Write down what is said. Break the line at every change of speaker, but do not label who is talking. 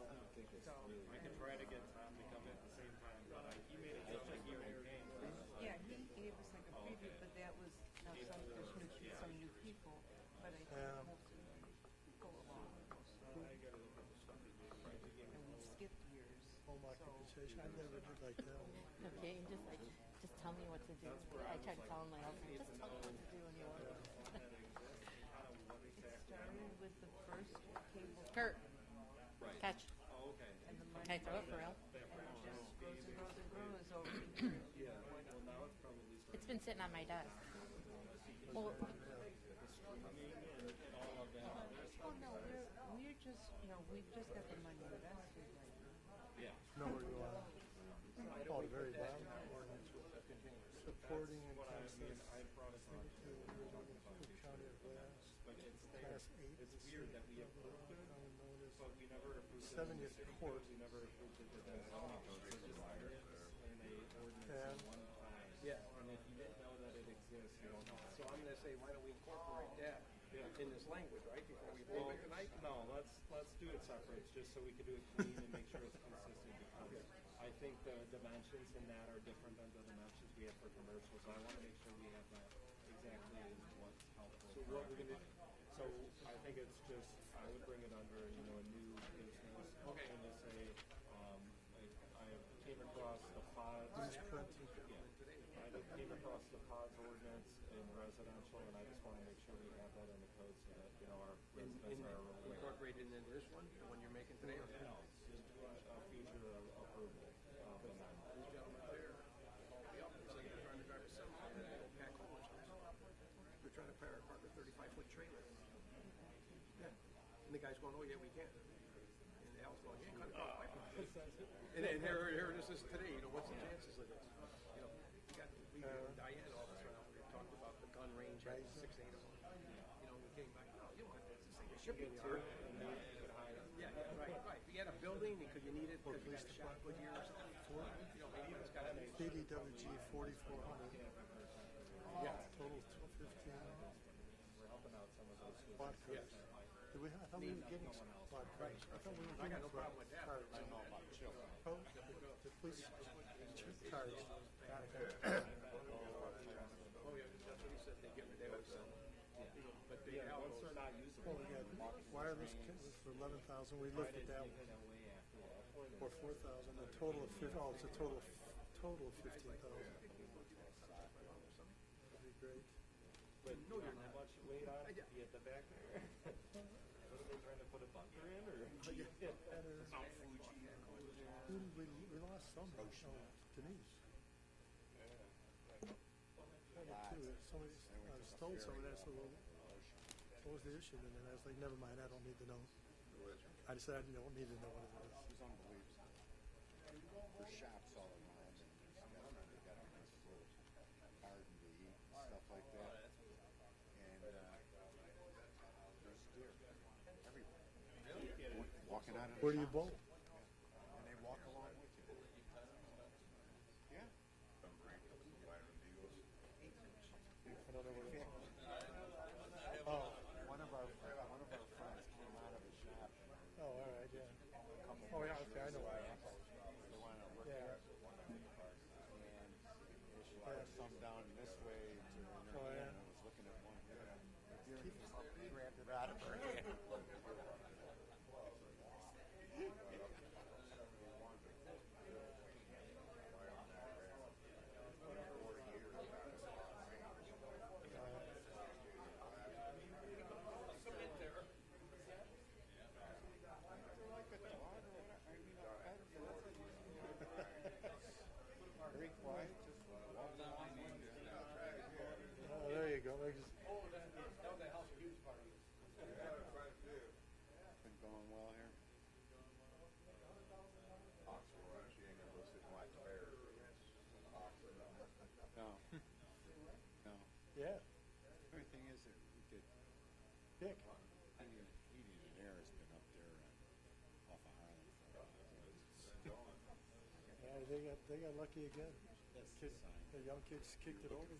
so.
I could try to get Tom to come at the same time, but I, he made it sound like he already came.
Yeah, he gave us like a preview, but that was now some, there's new, some new people, but I think we'll go along with those. And we've skipped years.
home occupation. I never did like that one.
Okay, and just like, just tell me what to do. I tried telling my husband, just tell me what to do in the order.
Started with the first cable
Kurt, catch.
Oh, okay.
and the money.
Can I throw it for real?
Just grows and grows and grows over the years.
Well, now it's probably
It's been sitting on my desk.
Oh,
Well,
no, we're, we're just, you know, we've just got the money invested right now.
Nowhere you are. Oh, the very bottom of the ordinance. Supporting and constant. Cook County of Glass, Class Eight. Seventieth Court. And
Yeah. And if you didn't know that it exists, you don't know. So I'm gonna say, why don't we incorporate that in this language, right, before we
Well,
vote it tonight?
no, let's, let's do it separate, just so we can do it clean and make sure it's consistent. because I think the dimensions in that are different than the dimensions we have for commercial, so I wanna make sure we have that exactly as what's helpful
So
for
what we're gonna-
everybody. So I think it's just, I would bring it under, you know, a new business.
Okay.
And just say, um, I, I came across the pods. Yeah. I just came across the pods ordinance in residential, and I just wanna make sure we have that in the code so that, you know, our
In,
residents
in,
are aware.
incorporated into this one, the one you're making today? or-
No, just a a future approval of the amendment.
These gentlemen there, yep, it's like they're trying to drive a semi, and they go pack homeless. They're trying to park park a thirty-five foot trailer. Yeah. And the guy's going, oh, yeah, we can. And Al's going, yeah, cut it off. And, and here, here it is this today, you know, what's the chances of this? You know, we got, we got Diane all this around, we talked about the gun range, at six, eight of them. You know, we came back, no, you don't have to, it's like a shipping yard. Yeah, right, right. We had a building, because you needed, because we had a shot put here or something. You know, maybe it's got a
BDWG forty-four hundred.
Yeah.
Total two fifteen. Quad
Yes.
cars. Did we, I thought we were getting some quad cars. I thought we were
I got
getting
no problem with that.
cars. Oh, the police, two cars.
Oh, yeah, that's what he said, they get, they would sell. You know, But they have
Once
those.
they're not usable,
Well, we got wireless kit for eleven thousand. We looked at that one.
then away after that.
Or four thousand, a total of fif, oh, it's a total, of- total of fifteen thousand. That'd be great.
But no, you're not much weight on it, you at the back there. What are they trying to put a bunker in or?
Better, who did we, we lost some, oh, Denise. That was too, uh, somebody, I was told somebody, I said, well, what was the issue? And then I was like, never mind, I don't need to know. I decided I don't need to know what it was.
It was unbelievable. There's shops all around and there's nothing. They got all this little garden to eat and stuff like that. And uh, there's deer everywhere. Wa- Walking out of the
Where do you
shops,
bowl?
And they walk along with you. Yeah.
I don't know where to bowl.
Oh, one of our fri- one of our friends came out of a shop.
Oh, all right, yeah.
a couple
Oh, yeah, okay, I know where I am.
They wanted to work
Yeah.
there. And there's a lot of some down this way to another
Oh, yeah.
end. I was looking at one here. Deer came up and grabbed it out of her hand. Very quiet, just walked along with it.
Oh, there you go, I just,
Been going well here. No. No.
yeah,
Only thing is that we did
Dick.
Heating, heating and air has been up there uh, off of Highland. for a while.
Yeah, they got, they got lucky again.
That's his sign.
The young kids kicked it over.